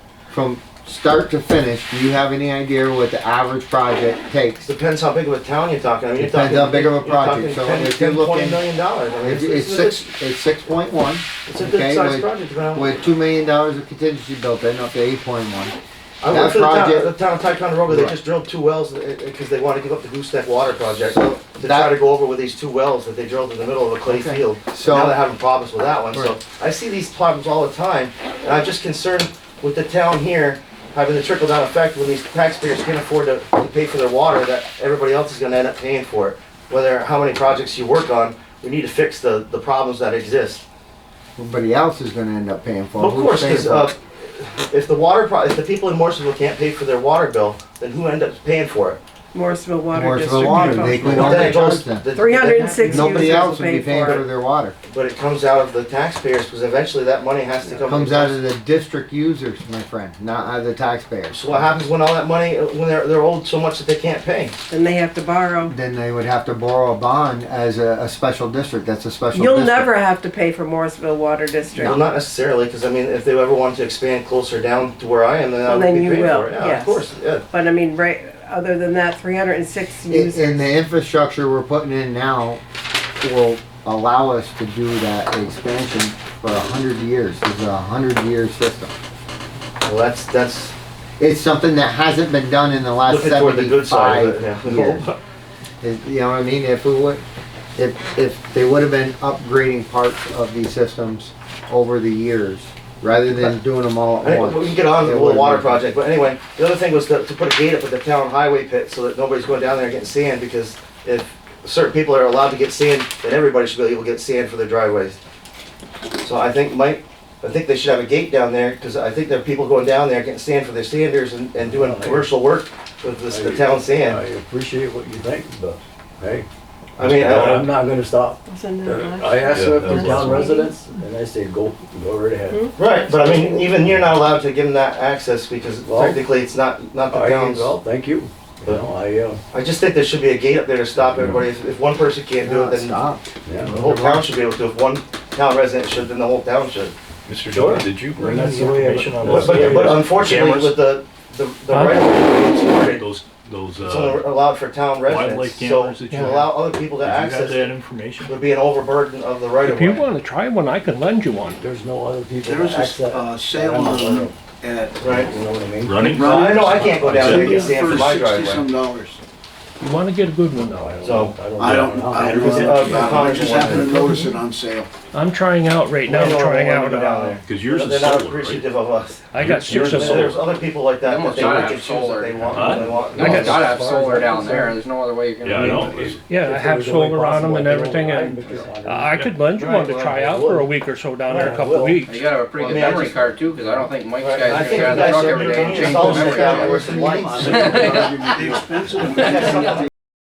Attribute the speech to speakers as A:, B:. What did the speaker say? A: from start to finish, do you have any idea what the average project takes?
B: Depends how big of a town you're talking. I mean, you're
A: Depends
B: talking.
A: how big of a
B: you're talking
A: project. So
B: 10,
A: if you're
B: 10, 20
A: looking-
B: million dollars. I mean,
A: It's, it's
B: it's-
A: six, it's six point one.
B: It's a good sized project, but I don't-
A: With two million dollars of contingency built in, up to eight point one.
B: I
A: that
B: went to the town,
A: project-
B: the town of Ticonderoga, they
A: Right.
B: just drilled two wells, because they wanna give up the gooseneck water project.
A: So
B: To try
A: that-
B: to go over with these two wells that they drilled in the middle of a clay
A: Okay.
B: field. And
A: So-
B: Now they're having problems with that one, so
A: Right.
B: I see these problems all the time, and I'm just concerned with the town here having the trickle down effect when these taxpayers can't afford to, to pay for their water, that everybody else is gonna end up paying for it. Whether, how many projects you work on, we need to fix the, the problems that exist.
A: Everybody else is gonna end up paying for it.
B: Of
A: Who's
B: course,
A: paying
B: because
A: for it?
B: uh, if the water, pro- if the people in Morrisonville can't pay for their water bill, then who ends up paying for it?
C: Morrisville Water
A: Morrisville
C: District.
A: Water, they
C: Commission.
A: could-
B: Well,
A: don't
B: then
A: they
B: it goes-
A: trust them?
B: the-
C: $360 users
A: Nobody
C: will
A: else would be
C: pay
A: paying
C: for it.
A: for their water.
B: But it comes out of the taxpayers, because eventually that money has to come.
A: Comes out of the district users, my friend, not out of the taxpayers.
B: So what happens when all that money, uh, when they're, they're owed so much that they can't pay?
C: And they have to borrow.
A: Then they would have to borrow a bond as a, a special district, that's a special
C: You'll
A: district.
C: never have to pay for Morrisville Water
B: Well,
C: District.
B: not necessarily, because I mean, if they ever wanted to expand closer down to where I am, then I
C: Well,
B: would
C: then
B: be
C: you
B: paying
C: will,
B: for it. Yeah,
C: yes.
B: of course, yeah.
C: But I mean, right, other than that, three hundred and six
A: And
C: users.
A: and the infrastructure we're putting in now will allow us to do that expansion for a hundred years. This is a hundred year system.
B: Well, that's, that's
A: It's something that hasn't been done in the last
B: looking toward the good side
A: seventy-five
B: of it,
A: years.
B: yeah.
A: Is- You know what I mean? If it would, if, if they would have been upgrading parts of these systems over the years, rather than doing them all
B: I
A: at
B: think
A: once.
B: we can get on
A: it
B: with the
A: would've
B: water
A: been-
B: project, but anyway, the other thing was to, to put a gate up at the town highway pit so that nobody's going down there getting sand, because if certain people are allowed to get sand, then everybody should be able to get sand for their driveways. So I think Mike, I think they should have a gate down there, because I think there are people going down there getting sand for their sanders and, and doing commercial work with this, the town
D: I
B: sand.
D: appreciate what you think, but, hey,
B: I mean, I-
D: I'm not gonna stop.
C: Wasn't it last-
D: I asked them if
E: Yeah,
D: they're
E: that
D: town
C: was-
D: residents, and they said, go, go right ahead.
B: Right, but I mean, even you're not allowed to give them that access because
D: Well-
B: technically it's not, not the
D: I,
B: town's.
D: well, thank you. You know, I, uh,
B: I just think there should be a gate up there to stop everybody. If, if one person can't do it,
A: Not
B: then
A: Stop.
D: yeah.
B: the whole town should be able to. If one town resident should, then the whole town should.
E: Mr.
D: Sure.
E: Jordan, did you bring
D: That's
E: the
D: the way I-
E: information on
B: But,
E: those?
B: but, but unfortunately,
E: cameras?
B: with the, the, the
D: Huh?
B: right it's limited.
E: Those, those,
B: It's only
E: uh,
B: allowed for town residents,
E: wildlife
B: so
E: cameras that you
B: to
E: have.
B: allow other people to
E: did you have
B: access
E: that
B: it
E: information?
B: would be an overburden of the right of
F: If you
B: way.
F: want to try one, I can lend you one.
D: There's no other people
G: There
D: to
G: was a uh,
D: access.
G: sale on at.
B: Right.
D: You know what I mean?
E: Running?
B: No, I know I can't go down there and get sand for my
G: For sixty
B: driveway.
G: some dollars.
F: You want to get a good one
D: No, I
F: though.
D: don't
B: So,
D: know. I don't.
G: I don't, I don't,
B: Is it, uh,
G: know. I just happened to notice it on sale.
F: I'm trying out right now,
B: I know I
F: trying
B: wanna
F: out,
B: go down
F: uh,
B: there.
E: Cause yours
B: They're
E: is
B: not
E: solar, right?
B: appreciative of us.
F: I got six of
B: There's there's
F: them.
B: other people like that that
H: Almost
B: they
H: gotta
B: would
H: have
B: choose that
H: solar.
B: they want,
E: Huh?
B: when they want.
F: I
H: You
F: got-
H: gotta have solar down there, there's no other way you're gonna.
E: Yeah, I
H: do
E: know.
H: it.
E: It's-
F: Yeah, I
D: If
F: have
D: there's only
F: solar on them
D: possible
F: and
D: way
F: everything
D: to
F: and uh,
D: do it,
F: I could lend you one to try out for a week or so down there, a couple of weeks.
H: You gotta have a pretty
B: I
H: good
B: mean, I
H: memory
B: just-
H: card too, cause I don't think Mike's
B: Right, I
H: guys
B: think
H: gonna
B: you guys
H: drive the truck
B: should
H: every
B: be
H: day and
B: doing
H: change
B: solar
H: the memory
B: down
H: card.
B: there. There's some lights.
G: The expensive.
B: That's something